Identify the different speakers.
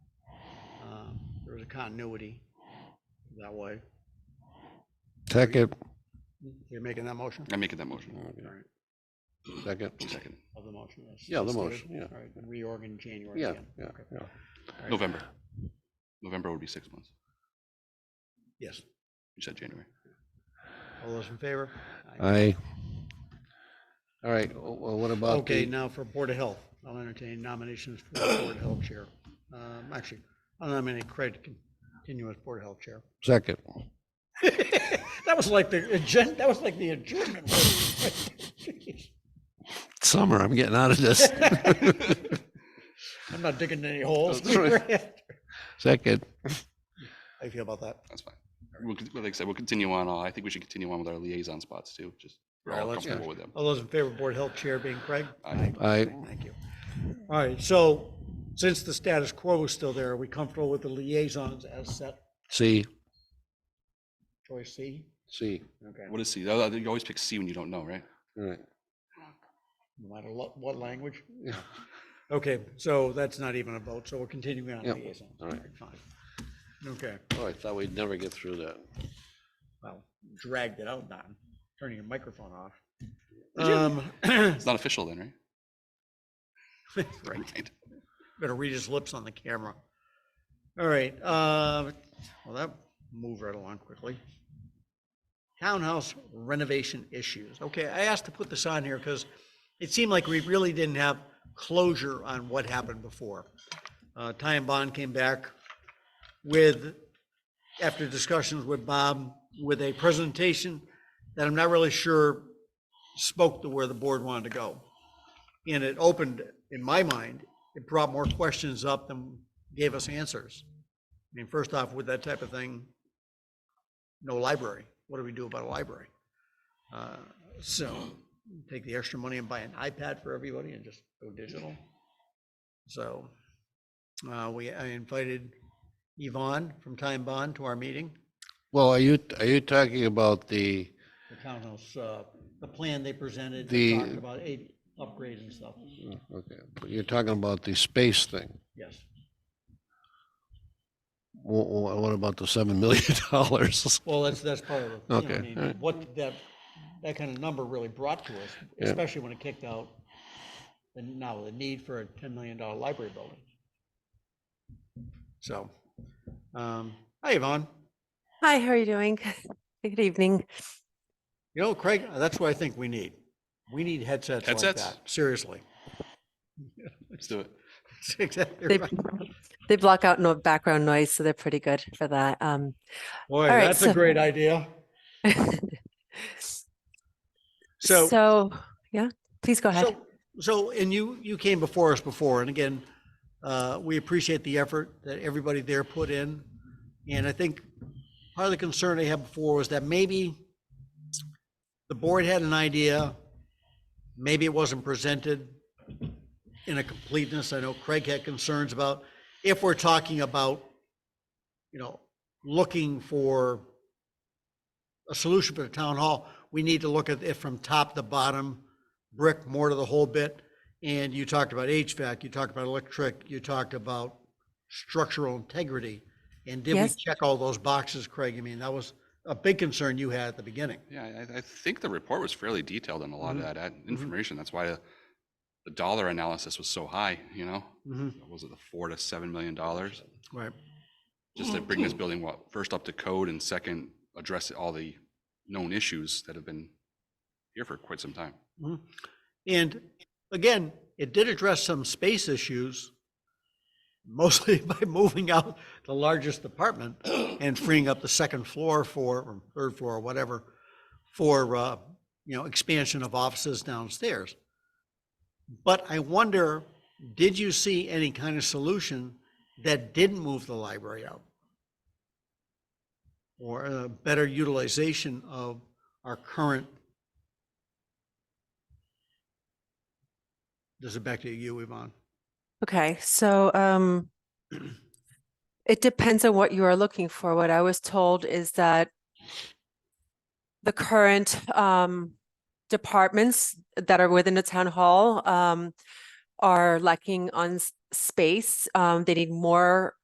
Speaker 1: Uh, continuity that way.
Speaker 2: Second,
Speaker 1: You're making that motion?
Speaker 3: I'm making that motion.
Speaker 2: Okay.
Speaker 1: All right,
Speaker 2: second.
Speaker 3: Second,
Speaker 1: Of the motion. yes.
Speaker 2: Yeah, the
Speaker 1: Let's do it.
Speaker 2: motion, yeah.
Speaker 1: All right, reorg in January
Speaker 2: Yeah,
Speaker 1: again.
Speaker 2: yeah,
Speaker 1: Okay.
Speaker 2: yeah.
Speaker 1: All right,
Speaker 3: November. November would be six months.
Speaker 1: Yes.
Speaker 3: You said January.
Speaker 1: All those in favor?
Speaker 2: Aye. All right, well, what about
Speaker 1: Okay,
Speaker 2: the,
Speaker 1: now for Board of Health, I'll entertain nominations for the Board of Health Chair. Um, Actually, I'll nominate Craig to continue as Board of Health Chair.
Speaker 2: second?
Speaker 1: That was like the agenda, that was like the adjournment.
Speaker 2: Summer, I'm getting out of this.
Speaker 1: I'm not digging any holes.
Speaker 2: That's Second,
Speaker 1: How you feel about that?
Speaker 3: That's fine. We'll, con- like I said, we'll continue on. uh, I think we should continue on with our liaison spots too, just we're
Speaker 1: All right,
Speaker 3: all
Speaker 1: let's-
Speaker 3: comfortable with them.
Speaker 1: All those in favor of Board of Health Chair being Craig?
Speaker 3: Aye.
Speaker 2: I,
Speaker 1: Thank you. All right, so since the status quo is still there, are we comfortable with the liaisons as set,
Speaker 2: C,
Speaker 1: choice C?
Speaker 2: C,
Speaker 1: Okay.
Speaker 3: What is C? Oh, You always pick C when you don't know, right?
Speaker 2: all right.
Speaker 1: No matter what, what language?
Speaker 2: Yeah.
Speaker 1: Okay, so that's not even a vote, so we're continuing on
Speaker 2: Yep,
Speaker 1: liaison.
Speaker 2: all right.
Speaker 1: Fine. Okay,
Speaker 2: Oh, I thought we'd never get through that.
Speaker 1: well, dragged it out, Don, turning your microphone off.
Speaker 3: you-
Speaker 1: Um,
Speaker 3: It's not official then, right?
Speaker 1: right,
Speaker 3: Right.
Speaker 1: better read his lips on the camera. All right, uh, well, that moved right along quickly. Townhouse renovation issues. Okay, I asked to put this on here because it seemed like we really didn't have closure on what happened before. Uh, Ty and Bond came back with, after discussions with Bob, with a presentation that I'm not really sure spoke to where the board wanted to go. And it opened, in my mind, it brought more questions up than gave us answers. I mean, first off, with that type of thing, no library. What do we do about a library? Uh, So take the extra money and buy an iPad for everybody and just go digital. So uh, we, I invited Yvonne from Time Bond to our meeting.
Speaker 2: Well, are you, are you talking about the,
Speaker 1: The townhouse, uh, the plan they presented,
Speaker 2: The-
Speaker 1: they talked about eight upgrades and stuff.
Speaker 2: Mm, okay, you're talking about the space thing?
Speaker 1: Yes.
Speaker 2: What, what about the seven million dollars?
Speaker 1: Well, that's, that's part of the, you know,
Speaker 2: Okay,
Speaker 1: I mean,
Speaker 2: all right.
Speaker 1: what that, that kind of number really brought to us,
Speaker 2: Yeah.
Speaker 1: especially when it kicked out the, now the need for a ten million dollar library building. So, um, hi Yvonne,
Speaker 4: Hi, how are you doing? Good evening.
Speaker 1: you know, Craig, that's what I think we need. We need headsets like
Speaker 3: Headsets?
Speaker 1: that, seriously.
Speaker 3: Let's do it.
Speaker 1: That's Exactly
Speaker 4: They,
Speaker 1: right.
Speaker 4: they block out no background noise, so they're pretty good for that. Um,
Speaker 1: Boy,
Speaker 4: right,
Speaker 1: that's a
Speaker 4: so-
Speaker 1: great idea. So.
Speaker 4: yeah, please go ahead.
Speaker 1: So, so, and you, you came before us before, and again, uh, we appreciate the effort that everybody there put in. And I think part of the concern I had before was that maybe the board had an idea, maybe it wasn't presented in a completeness. I know Craig had concerns about, if we're talking about, you know, looking for a solution for the town hall, we need to look at it from top to bottom, brick, mortar, the whole bit. And you talked about HVAC, you talked about electric, you talked about structural integrity. And did we
Speaker 4: Yes.
Speaker 1: check all those boxes, Craig? I mean, that was a big concern you had at the beginning.
Speaker 3: Yeah, I, I think the report was fairly detailed on a lot of that ad- information. That's why the, the dollar analysis was so high, you know?
Speaker 1: Mhm.
Speaker 3: What Was it the Mm-hmm. four to seven million dollars?
Speaker 1: Right.
Speaker 3: Just to bring this building, well, first up to code and second, address all the known issues that have been here for quite some time.
Speaker 1: And again, it did address some space issues, mostly by moving out the largest apartment and freeing up the second floor for, or third floor, or whatever, for, uh, you know, expansion of offices downstairs. But I wonder, did you see any kind of solution that didn't move the library out? Or a better utilization of our current This is back to you, Yvonne.
Speaker 4: Okay, so um, it depends on what you are looking for. What I was told is that the current um, departments that are within the town hall um, are lacking on s- space. Um, they need more